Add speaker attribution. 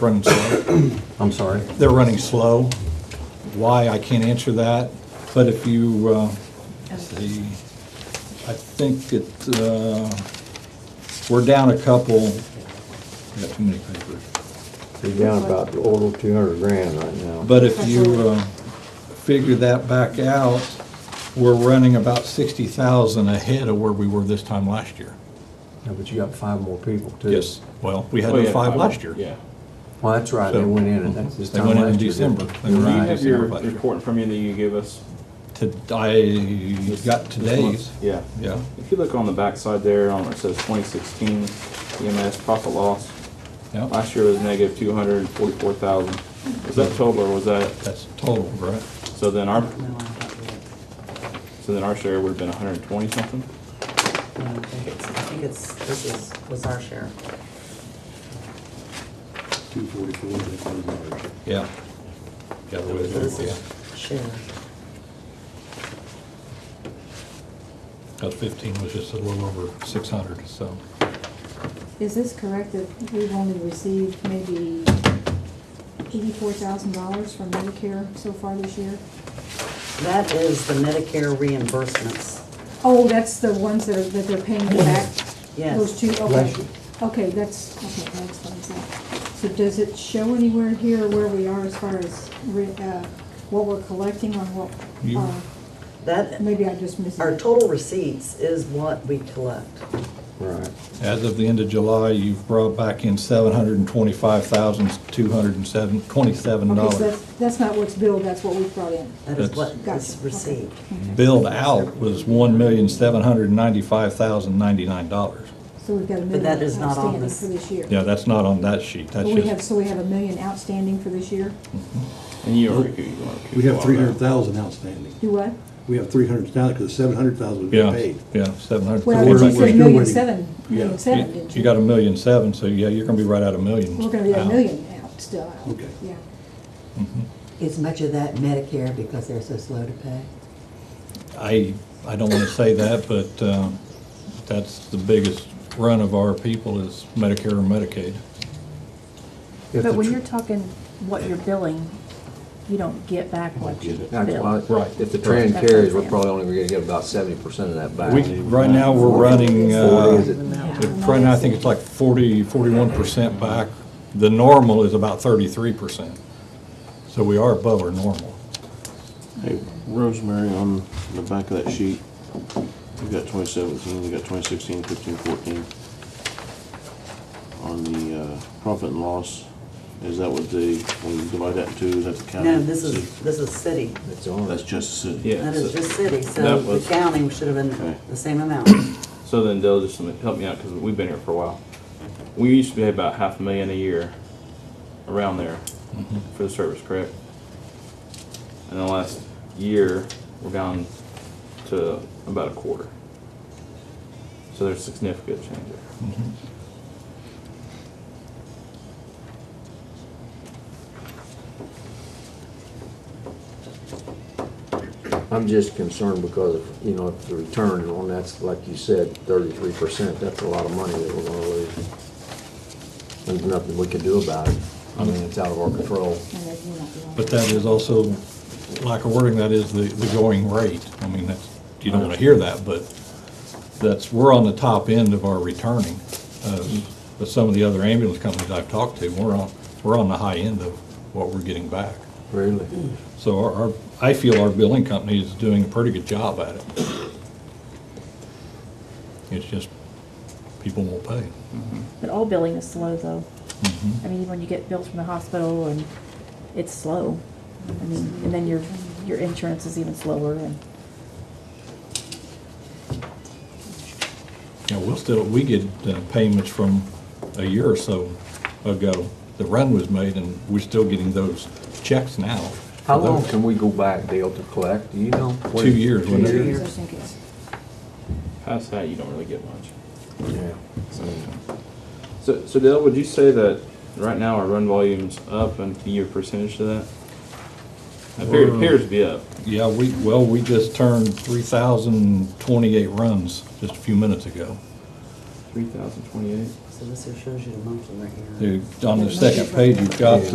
Speaker 1: running slow.
Speaker 2: I'm sorry.
Speaker 1: They're running slow. Why, I can't answer that, but if you, uh, let's see, I think it, uh, we're down a couple, we got too many papers.
Speaker 2: You're down about over two hundred grand right now.
Speaker 1: But if you uh, figure that back out, we're running about 60,000 ahead of where we were this time last year.
Speaker 2: Yeah, But you got five more people too.
Speaker 1: Well, we had
Speaker 3: Oh, yeah,
Speaker 1: five last year.
Speaker 3: Yeah.
Speaker 2: Well, that's right, they
Speaker 1: So-
Speaker 2: went in, and that's this
Speaker 1: They
Speaker 2: time
Speaker 1: went in in
Speaker 2: last year, didn't
Speaker 1: December.
Speaker 2: they?
Speaker 1: They
Speaker 2: You're
Speaker 1: went
Speaker 3: Do you
Speaker 1: in
Speaker 2: right.
Speaker 3: have your
Speaker 1: Right.
Speaker 3: report in front of you that you gave us?
Speaker 1: To- I got today's,
Speaker 3: Yeah.
Speaker 1: yeah.
Speaker 3: If you look on the backside there, on where it says 2016 EMS profit loss,
Speaker 1: Yeah,
Speaker 3: last year was negative 244,000. Was that total or was that,
Speaker 1: that's total, right?
Speaker 3: so then our, so then our share would have been 120 something?
Speaker 4: I think it's, this is, was our share.
Speaker 5: Two forty-four, they closed ours.
Speaker 1: Yeah. The other way
Speaker 4: This
Speaker 1: around, yeah.
Speaker 4: is share.
Speaker 1: 'Cause 15 was just a little over 600, so.
Speaker 6: Is this correct that we've only received maybe eighty-four thousand dollars from Medicare so far this year?
Speaker 4: That is the Medicare reimbursements.
Speaker 6: Oh, that's the ones that are, that they're paying back?
Speaker 4: Yes.
Speaker 6: Those two, okay.
Speaker 2: Bless you.
Speaker 6: Okay, that's, okay, that explains that. So does it show anywhere here where we are as far as, re- uh, what we're collecting on what?
Speaker 1: You-
Speaker 6: uh,
Speaker 4: That,
Speaker 6: Maybe I just missed it.
Speaker 4: our total receipts is what we collect.
Speaker 2: Right.
Speaker 1: As of the end of July, you've brought back in
Speaker 6: Okay, so
Speaker 1: $725,227.
Speaker 6: that's, that's not what's billed, that's what we've brought in.
Speaker 4: That is
Speaker 1: That's-
Speaker 4: what is
Speaker 6: Gotcha, okay.
Speaker 4: received.
Speaker 1: billed out was one million, seven hundred and ninety-five thousand, ninety-nine dollars.
Speaker 6: So we've got a
Speaker 4: But
Speaker 6: million
Speaker 4: that is not on
Speaker 6: outstanding
Speaker 4: this.
Speaker 6: for this year.
Speaker 1: Yeah, that's not on that sheet,
Speaker 6: But
Speaker 1: that's
Speaker 6: we have,
Speaker 1: just,
Speaker 6: so we have a million outstanding for this year?
Speaker 3: And you are. you are-
Speaker 5: We have three hundred thousand outstanding.
Speaker 6: Do what?
Speaker 5: We have three hundred thousand, because seven hundred thousand was
Speaker 1: yeah,
Speaker 5: paid.
Speaker 1: yeah, seven hundred.
Speaker 6: Well,
Speaker 5: we're- we're
Speaker 6: you said
Speaker 5: still
Speaker 6: million
Speaker 5: waiting.
Speaker 6: seven, million
Speaker 5: Yeah.
Speaker 6: seven, didn't you?
Speaker 1: You got a million seven, so yeah, you're gonna be right at a million.
Speaker 6: We're gonna be at a
Speaker 1: now.
Speaker 6: million out, still out.
Speaker 5: Uh-huh. Okay.
Speaker 6: Yeah.
Speaker 7: Is much of that Medicare because they're so slow to pay?
Speaker 1: I, I don't wanna say that, but, um, that's the biggest run of our people is Medicare and Medicaid.
Speaker 2: If
Speaker 8: But
Speaker 2: the
Speaker 8: when
Speaker 2: tr-
Speaker 8: you're talking what you're billing, you don't get back what you
Speaker 2: that's why-
Speaker 8: bill.
Speaker 1: Right.
Speaker 2: If the trend
Speaker 8: That's what
Speaker 2: carries,
Speaker 8: I'm
Speaker 2: we're
Speaker 8: saying.
Speaker 2: probably only gonna get about seventy percent of that back.
Speaker 1: We, right now, we're running,
Speaker 2: Forty is
Speaker 1: uh,
Speaker 2: it?
Speaker 1: if- right now, I think it's like forty, forty-one percent back. The normal is about thirty-three percent. So we are above our normal.
Speaker 9: Hey, Rosemary, on the back of that sheet, you've got 2017, you've got 2016, 15, 14. On the uh, profit and loss, is that what the, when you divide that in two, is that the county?
Speaker 4: No, this is, this is city.
Speaker 2: It's on.
Speaker 9: That's just the city?
Speaker 3: Yeah.
Speaker 4: That is
Speaker 3: so-
Speaker 4: just city, so
Speaker 3: That
Speaker 4: the
Speaker 3: was-
Speaker 4: counting should have been
Speaker 9: Okay.
Speaker 4: the same amount.
Speaker 3: So then Dale, just help me out because we've been here for a while. We used to pay about half a million a year, around there, for the service, correct? And the last year, we're down to about a quarter. So there's significant change there.
Speaker 2: I'm just concerned because of, you know, if the return on that's, like you said, thirty-three percent, that's a lot of money that we're gonna lose. There's nothing we can do about it. I mean, it's out of our control.
Speaker 6: And that we're not doing.
Speaker 1: But that is also, lack of wording, that is the, the going rate. I mean, that's, you don't want to hear that, but that's, we're on the top end of our returning. uh, But some of the other ambulance companies I've talked to, we're on, we're on the high end of what we're getting back.
Speaker 2: Really?
Speaker 1: So our, our- I feel our billing company is doing a pretty good job at it. It's just, people won't pay.
Speaker 8: But all billing is slow though.
Speaker 2: Mm-hmm.
Speaker 8: I mean, when you get bills from the hospital and it's slow. I mean, and then your, your insurance is even slower and,
Speaker 1: You know, we'll still, we get uh, payments from a year or so ago. The run was made and we're still getting those checks now. for
Speaker 2: How long
Speaker 1: those
Speaker 2: can we go back, Dale, to collect? Do you know?
Speaker 1: Two years,
Speaker 2: Two
Speaker 1: wasn't it?
Speaker 2: years?
Speaker 6: I think it's-
Speaker 3: Past that, you don't really get much.
Speaker 2: Yeah.
Speaker 3: So, so Dale, would you say that right now our run volume's up and your percentage to that? Appears, appears to be up.
Speaker 1: Yeah, we, well, we just turned three thousand twenty-eight runs just a few minutes ago.
Speaker 3: Three thousand twenty-eight.
Speaker 4: So this here shows you the monthly right here.
Speaker 1: The- On the second page, you've got